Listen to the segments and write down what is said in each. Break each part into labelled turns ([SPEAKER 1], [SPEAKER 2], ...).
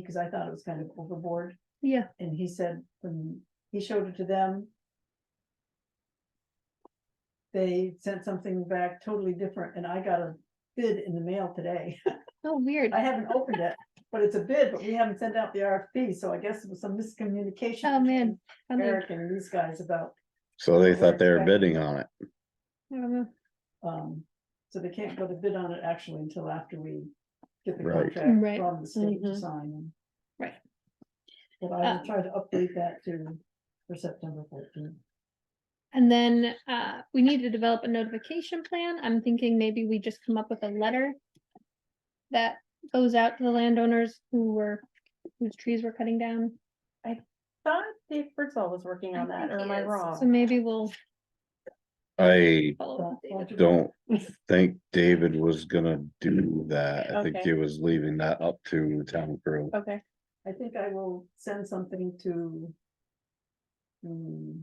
[SPEAKER 1] because I thought it was kind of overboard.
[SPEAKER 2] Yeah.
[SPEAKER 1] And he said, when he showed it to them. They sent something back totally different and I got a bid in the mail today.
[SPEAKER 2] Oh, weird.
[SPEAKER 1] I haven't opened it, but it's a bid, but we haven't sent out the RFP, so I guess it was some miscommunication.
[SPEAKER 2] Oh, man. I
[SPEAKER 1] between
[SPEAKER 2] mean,
[SPEAKER 1] Eric and these guys about,
[SPEAKER 3] So they thought they were
[SPEAKER 1] Exactly.
[SPEAKER 3] bidding on it.
[SPEAKER 2] I don't know.
[SPEAKER 1] um, so they can't go to bid on it actually until after we. Get the
[SPEAKER 3] Right.
[SPEAKER 1] contract
[SPEAKER 2] Right. Mm-hmm.
[SPEAKER 1] from the state to
[SPEAKER 4] Mhm.
[SPEAKER 1] sign.
[SPEAKER 2] Right.
[SPEAKER 1] But I
[SPEAKER 2] Uh,
[SPEAKER 1] will try to update that to, for September fourteenth.
[SPEAKER 2] And then uh, we need to develop a notification plan. I'm thinking maybe we just come up with a letter that goes out to the landowners who were, whose trees were cutting down.
[SPEAKER 4] Thought Dave Birdsall was working on that, or am I
[SPEAKER 2] So
[SPEAKER 4] wrong?
[SPEAKER 2] maybe we'll
[SPEAKER 3] I
[SPEAKER 2] follow up. with David.
[SPEAKER 3] don't think David was gonna do that. I think
[SPEAKER 4] Okay.
[SPEAKER 3] he was leaving that up to town crew.
[SPEAKER 4] Okay,
[SPEAKER 1] I think I will send something to. hmm,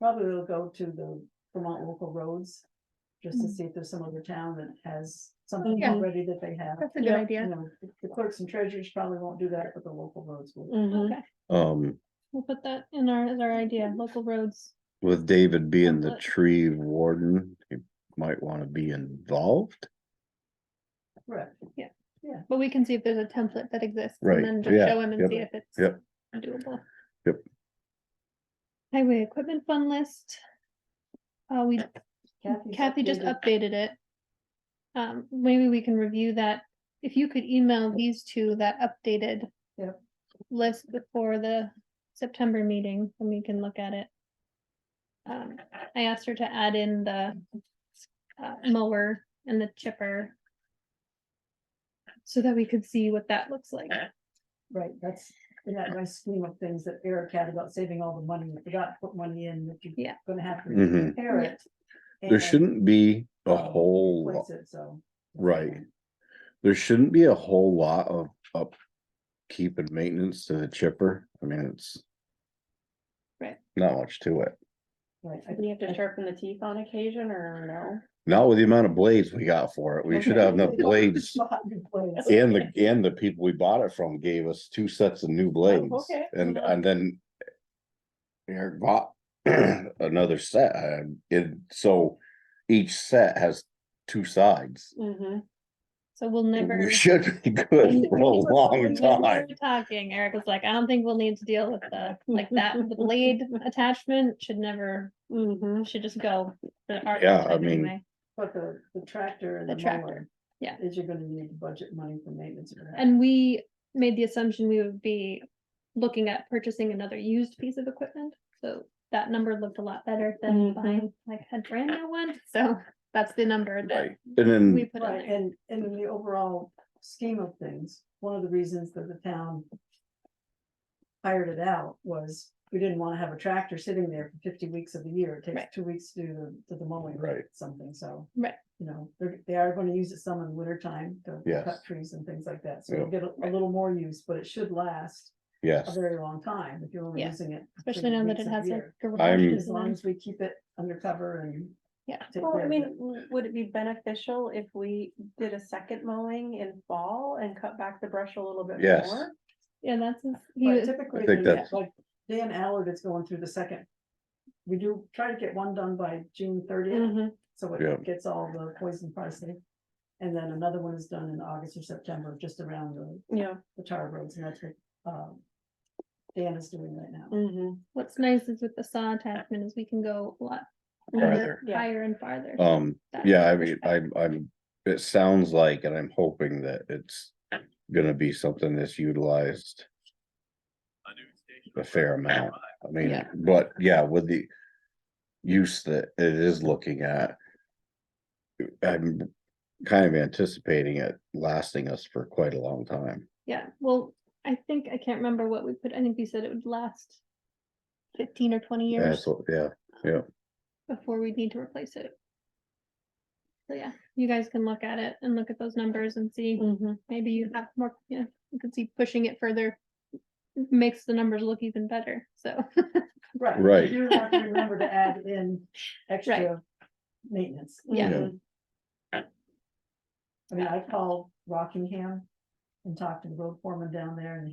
[SPEAKER 1] probably it'll go to the Vermont local roads, just to
[SPEAKER 2] Mhm.
[SPEAKER 1] see if there's some other town that has something
[SPEAKER 2] Yeah.
[SPEAKER 1] already that they have.
[SPEAKER 2] That's a good
[SPEAKER 4] Yeah.
[SPEAKER 1] You
[SPEAKER 2] idea.
[SPEAKER 1] know, the- the clerks and treasurers probably won't do that, but the local roads will.
[SPEAKER 2] Mm.
[SPEAKER 4] mhm,
[SPEAKER 2] Okay,
[SPEAKER 3] Um,
[SPEAKER 2] we'll put that in our, as our idea, local roads.
[SPEAKER 3] with David being the
[SPEAKER 2] Template.
[SPEAKER 3] tree warden, he might wanna be involved.
[SPEAKER 1] Correct.
[SPEAKER 2] But we can see if there's a template that exists
[SPEAKER 3] Right,
[SPEAKER 2] and then just
[SPEAKER 3] yeah,
[SPEAKER 2] show him and
[SPEAKER 3] yep,
[SPEAKER 2] see if it's
[SPEAKER 3] yep.
[SPEAKER 2] doable.
[SPEAKER 3] Yep.
[SPEAKER 2] Highway equipment fund list. Uh, we,
[SPEAKER 1] Kathy's
[SPEAKER 2] Kathy just
[SPEAKER 1] updated.
[SPEAKER 2] updated it. Um, maybe we can review that. If you could email these two that updated
[SPEAKER 1] Yep.
[SPEAKER 2] list before the September meeting, and we can look at it. Um, I asked her to add in the uh, mower and the chipper. So that we could see what that looks like.
[SPEAKER 1] Right, that's in that nice scheme of things that Eric had about saving all the money, we forgot to put money in that you're
[SPEAKER 2] Yeah.
[SPEAKER 1] gonna have to
[SPEAKER 3] Mhm.
[SPEAKER 1] repair
[SPEAKER 2] Yeah. Oh,
[SPEAKER 1] it.
[SPEAKER 3] There
[SPEAKER 1] and
[SPEAKER 3] shouldn't be a whole,
[SPEAKER 1] replace
[SPEAKER 3] lo-
[SPEAKER 1] it, so.
[SPEAKER 3] right. There shouldn't be a whole lot of upkeep and maintenance to the chipper. I mean, it's.
[SPEAKER 2] Right.
[SPEAKER 3] Not much to it.
[SPEAKER 1] Right, I
[SPEAKER 4] do you have to sharpen the teeth on occasion, or
[SPEAKER 3] Not with the amount of blades we got for it.
[SPEAKER 2] Oh,
[SPEAKER 3] We should have enough blades. And the, and the people we bought it from gave us two sets of new blades
[SPEAKER 4] okay.
[SPEAKER 3] and,
[SPEAKER 4] Yeah.
[SPEAKER 3] and then. Eric bought another set, uh, and so each set has two sides.
[SPEAKER 4] no? Mhm.
[SPEAKER 2] So we'll never.
[SPEAKER 3] We should be good for a long
[SPEAKER 2] When we
[SPEAKER 3] time.
[SPEAKER 2] were Talking, Eric was like, I don't think we'll need to deal with the, like that, the blade attachment should never,
[SPEAKER 4] Mhm.
[SPEAKER 2] should just go. for our
[SPEAKER 3] Yeah, I
[SPEAKER 2] type
[SPEAKER 3] mean-
[SPEAKER 2] anyway.
[SPEAKER 1] But the, the tractor and
[SPEAKER 2] The
[SPEAKER 1] the
[SPEAKER 2] tractor,
[SPEAKER 1] mower.
[SPEAKER 2] yeah.
[SPEAKER 1] Is you're gonna need budget money for maintenance. for that.
[SPEAKER 2] And we made the assumption we would be looking at purchasing another used piece of equipment, so that number looked a lot better than
[SPEAKER 4] Mhm.
[SPEAKER 1] Mm-hmm.
[SPEAKER 2] buying like a brand new one, so that's the number that
[SPEAKER 3] Right, and
[SPEAKER 2] we
[SPEAKER 3] then,
[SPEAKER 2] put on
[SPEAKER 1] Right,
[SPEAKER 2] there.
[SPEAKER 1] and, and in the overall scheme of things, one of the reasons that the town. Hired it out was we didn't wanna have a tractor sitting there for fifty weeks of the year. It
[SPEAKER 2] Right.
[SPEAKER 1] takes two weeks to do the, to the mowing. or
[SPEAKER 3] Right.
[SPEAKER 1] Something, so.
[SPEAKER 2] Right.
[SPEAKER 1] You know, they're, they are gonna use it some in the winter time to
[SPEAKER 3] Yes.
[SPEAKER 1] cut trees and things like that, so you'll
[SPEAKER 3] Yeah.
[SPEAKER 1] get a- a little more use, but it should last a
[SPEAKER 3] yes,
[SPEAKER 1] very long time if you're only
[SPEAKER 2] Yeah.
[SPEAKER 1] using it. for
[SPEAKER 2] especially
[SPEAKER 1] the
[SPEAKER 2] now that
[SPEAKER 1] weeks
[SPEAKER 2] it
[SPEAKER 1] of the
[SPEAKER 2] has like
[SPEAKER 1] year.
[SPEAKER 2] garages
[SPEAKER 1] As long
[SPEAKER 2] and,
[SPEAKER 1] as we keep it undercover and.
[SPEAKER 2] yeah.
[SPEAKER 1] take
[SPEAKER 4] Well,
[SPEAKER 1] care
[SPEAKER 4] I
[SPEAKER 1] of
[SPEAKER 4] mean,
[SPEAKER 1] it.
[SPEAKER 4] w- would it be beneficial if we did a second mowing in fall and cut back the brush a little bit
[SPEAKER 3] Yes.
[SPEAKER 4] more?
[SPEAKER 2] Yeah, that's, his- he
[SPEAKER 1] But
[SPEAKER 2] was,
[SPEAKER 1] typically,
[SPEAKER 3] think
[SPEAKER 1] the-
[SPEAKER 3] that's-
[SPEAKER 1] like Dan Allard is going through the second. We do try to get one done by June thirtieth,
[SPEAKER 4] Mhm.
[SPEAKER 1] so
[SPEAKER 3] Yeah.
[SPEAKER 1] it gets all the poison pricing. And then another one is done in August or September, just around the,
[SPEAKER 4] Yeah.
[SPEAKER 1] the tar roads, and that's what, um. Dan is doing right now.
[SPEAKER 4] mhm.
[SPEAKER 2] what's nice is with the saw attachment is we can go a lot
[SPEAKER 3] Farther.
[SPEAKER 4] Yeah.
[SPEAKER 2] higher and farther.
[SPEAKER 3] um,
[SPEAKER 2] That-
[SPEAKER 3] yeah, I mean, I'm, I'm, it sounds like, and I'm hoping that it's. Gonna be something that's utilized a fair amount. I mean,
[SPEAKER 2] Yeah.
[SPEAKER 3] but yeah, with the use that it is looking at. I'm kind of anticipating it lasting us for quite a long time.
[SPEAKER 2] Yeah, well, I think, I can't remember what we put, I think we said it would last fifteen or twenty years
[SPEAKER 3] That's what, yeah,
[SPEAKER 2] before we'd need to replace it. So yeah, you guys can look at it and look at those numbers and see,
[SPEAKER 4] Mhm.
[SPEAKER 2] maybe you have more, yeah, you can see pushing it further makes the numbers look even better, so.
[SPEAKER 1] Right. you
[SPEAKER 3] Right.
[SPEAKER 1] do have to remember to add in extra maintenance.
[SPEAKER 2] Yeah.
[SPEAKER 4] Mhm.
[SPEAKER 1] I mean, I called Rockingham and talked to the road foreman down there and